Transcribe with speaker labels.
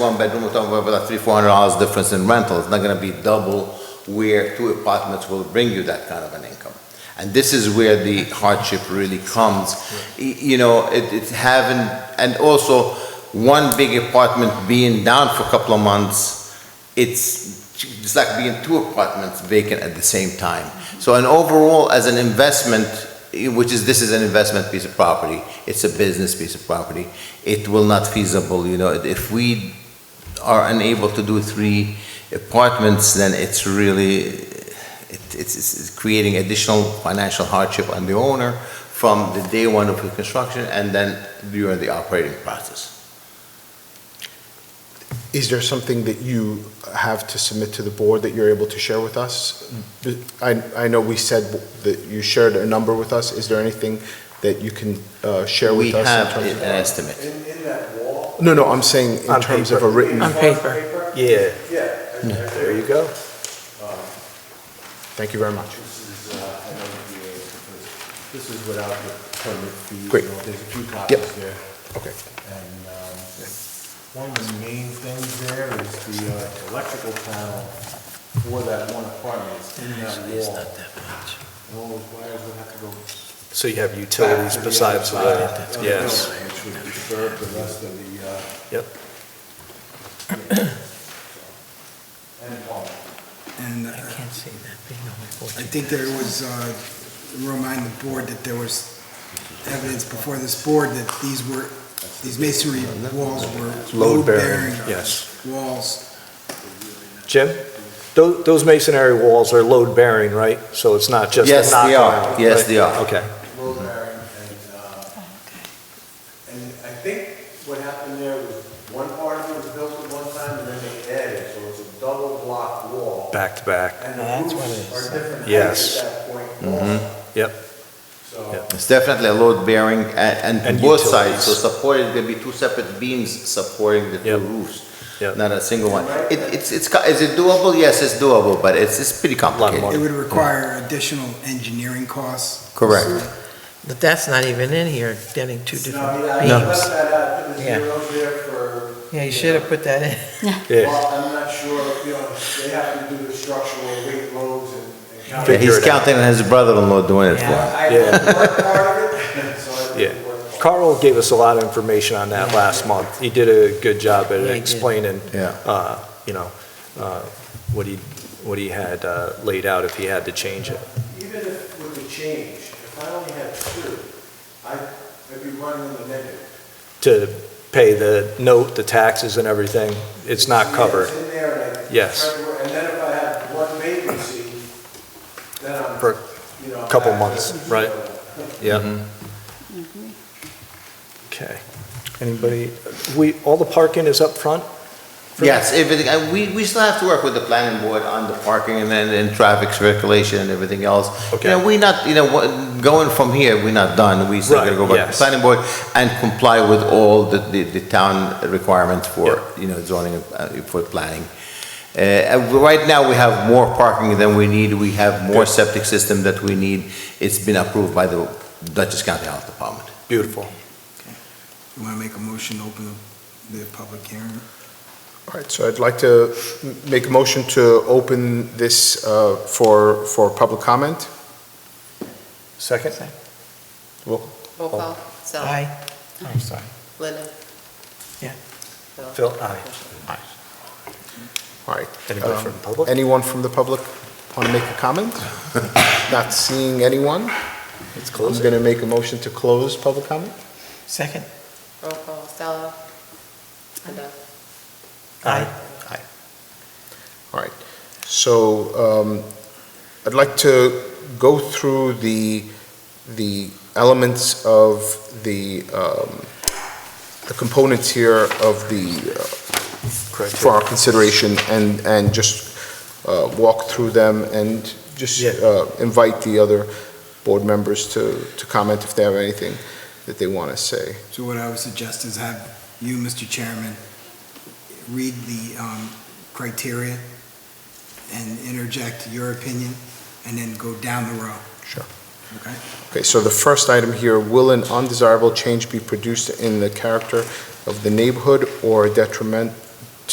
Speaker 1: One bedroom, we're talking about three, four hundred dollars difference in rental, it's not gonna be double where two apartments will bring you that kind of an income. And this is where the hardship really comes, Y- you know, it, it having, and also, one big apartment being down for a couple of months, it's, it's like being two apartments vacant at the same time. So an overall, as an investment, eh, which is, this is an investment piece of property, it's a business piece of property, it will not feasible, you know, if we are unable to do three apartments, then it's really, it- it's, it's it's creating additional financial hardship on the owner from the day one of the construction and then during the operating process.
Speaker 2: Is there something that you have to submit to the board that you're able to share with us? I, I know we said that you shared a number with us. Is there anything that you can uh, share
Speaker 1: We
Speaker 2: with us? in
Speaker 1: have
Speaker 2: terms
Speaker 1: an
Speaker 2: of-
Speaker 1: estimate.
Speaker 3: In, in that wall?
Speaker 2: No, no, I'm saying in
Speaker 4: On
Speaker 2: terms of a
Speaker 4: paper.
Speaker 2: written,
Speaker 4: On paper. Yeah,
Speaker 3: Yeah.
Speaker 4: there you go.
Speaker 2: thank you very much.
Speaker 3: This is, uh, I know the DA, because this is without the permit fees.
Speaker 2: Great.
Speaker 3: There's a few
Speaker 2: Yep.
Speaker 3: copies there.
Speaker 2: Okay.
Speaker 3: And um, one of the main things there is the uh, electrical panel for that one apartment. It's in that wall. And all those wires would have to go
Speaker 4: So you have
Speaker 3: back
Speaker 4: utilities
Speaker 3: to the other
Speaker 4: besides
Speaker 3: side of
Speaker 4: that,
Speaker 3: the
Speaker 4: yes.
Speaker 3: building, Which would disturb the rest of the, uh,
Speaker 4: Yep,
Speaker 3: end wall.
Speaker 5: And uh,
Speaker 6: I can't see that being on my board.
Speaker 5: I think there was, uh, remind the board that there was evidence before this board that these were, these masonry walls were
Speaker 4: Load-bearing,
Speaker 5: load-bearing
Speaker 4: yes.
Speaker 5: walls.
Speaker 4: Jim, tho- those masonry walls are load-bearing, right? So it's not just
Speaker 1: Yes,
Speaker 4: a
Speaker 1: they are.
Speaker 4: knockdown?
Speaker 1: Yes,
Speaker 4: right?
Speaker 1: they are.
Speaker 4: Okay,
Speaker 3: road barrier, and, uh, and I think what happened there was one part of it was built at one time, and then they added, so it's a double block wall.
Speaker 4: back to back,
Speaker 3: And
Speaker 6: That's
Speaker 3: the
Speaker 6: what it
Speaker 3: roofs
Speaker 6: is.
Speaker 3: are different heights
Speaker 4: Yes. Mm-hmm.
Speaker 3: at that point also.
Speaker 4: yep.
Speaker 3: So,
Speaker 1: It's definitely a load bearing and, and
Speaker 4: And
Speaker 1: both sides, so
Speaker 4: utilities.
Speaker 1: supported, there'll be two separate beams supporting the two
Speaker 4: Yep.
Speaker 1: roofs,
Speaker 4: Yep.
Speaker 1: not a single one. It, it's, it's, co- is it doable? Yes, it's doable, but it's, it's pretty
Speaker 5: It
Speaker 1: complicated.
Speaker 4: money.
Speaker 5: would require additional engineering costs.
Speaker 1: Correct.
Speaker 6: But that's not even in here, getting two
Speaker 3: no,
Speaker 6: different
Speaker 3: I mean, I left
Speaker 6: beams.
Speaker 3: that out, put the
Speaker 6: Yeah.
Speaker 3: zeros there for.
Speaker 6: Yeah, you should have put that in.
Speaker 4: Yeah,
Speaker 3: Well, I'm not sure, you know, they have to do the structural weight loads and. and count-
Speaker 1: Yeah,
Speaker 4: Figure
Speaker 1: He's
Speaker 4: it out.
Speaker 1: counting on his brother-in-law doing it for him.
Speaker 6: Yeah.
Speaker 3: I
Speaker 4: Yeah.
Speaker 3: worked part of it, so I
Speaker 4: yeah.
Speaker 3: didn't work. all-
Speaker 4: Carl gave us a lot of information on that last month. He did a good job at
Speaker 6: Yeah, he did.
Speaker 4: explaining,
Speaker 1: Yeah.
Speaker 4: uh, you know, uh, what he, what he had uh, laid out if he had to change it.
Speaker 3: Even if with the change, if I only had two, I- I'd be running in the negative.
Speaker 4: to pay the note, the taxes and everything, it's not covered.
Speaker 3: It's in there, and I-
Speaker 4: Yes.
Speaker 3: And then if I had one vacancy, then I'm,
Speaker 4: For-
Speaker 3: you know.
Speaker 4: couple
Speaker 3: back to-
Speaker 4: months, right. Yeah. Okay. Anybody, we, all the parking is up front?
Speaker 1: Yes, everything, and we, we still have to work with the planning board on the parking and then, and traffic circulation and everything else.
Speaker 4: Okay.
Speaker 1: You know, we not, you know, what- going from here, we're not done, we still gotta
Speaker 4: Right,
Speaker 1: go back to the
Speaker 4: yes.
Speaker 1: planning board and comply with all the, the, the town requirements for,
Speaker 4: Yeah.
Speaker 1: you know, zoning, uh, for planning. Uh, and right now, we have more parking than we need, we have more septic system that we need, it's been approved by the Dutchess County Health Department.
Speaker 4: Beautiful.
Speaker 5: You want to make a motion to open the public hearing?
Speaker 2: All right, so I'd like to m- make a motion to open this uh, for, for public comment.
Speaker 4: Second?
Speaker 7: Roll call, Stella.
Speaker 6: Aye. I'm sorry.
Speaker 7: Linda.
Speaker 6: Yeah.
Speaker 4: Oh, Phil, aye.
Speaker 2: All right. Um,
Speaker 4: Anybody from the public?
Speaker 2: Anyone from the public want to make a comment? Not seeing anyone?
Speaker 4: It's
Speaker 2: I'm
Speaker 4: closed.
Speaker 2: going to make a motion to close public comment.
Speaker 6: Second?
Speaker 7: Roll call, Stella. Linda.
Speaker 6: Aye.
Speaker 2: All right. So um, I'd like to go through the, the elements of the, um, the components here of the, uh, for our consideration and, and just uh, walk through them and just
Speaker 4: Yeah.
Speaker 2: uh, invite the other board members to, to comment if they have anything that they want to say.
Speaker 5: So what I would suggest is have you, Mr. Chairman, read the um, criteria and interject your opinion, and then go down the row,
Speaker 2: Sure.
Speaker 5: okay?
Speaker 2: Okay, so the first item here, will an undesirable change be produced in the character of the neighborhood or detriment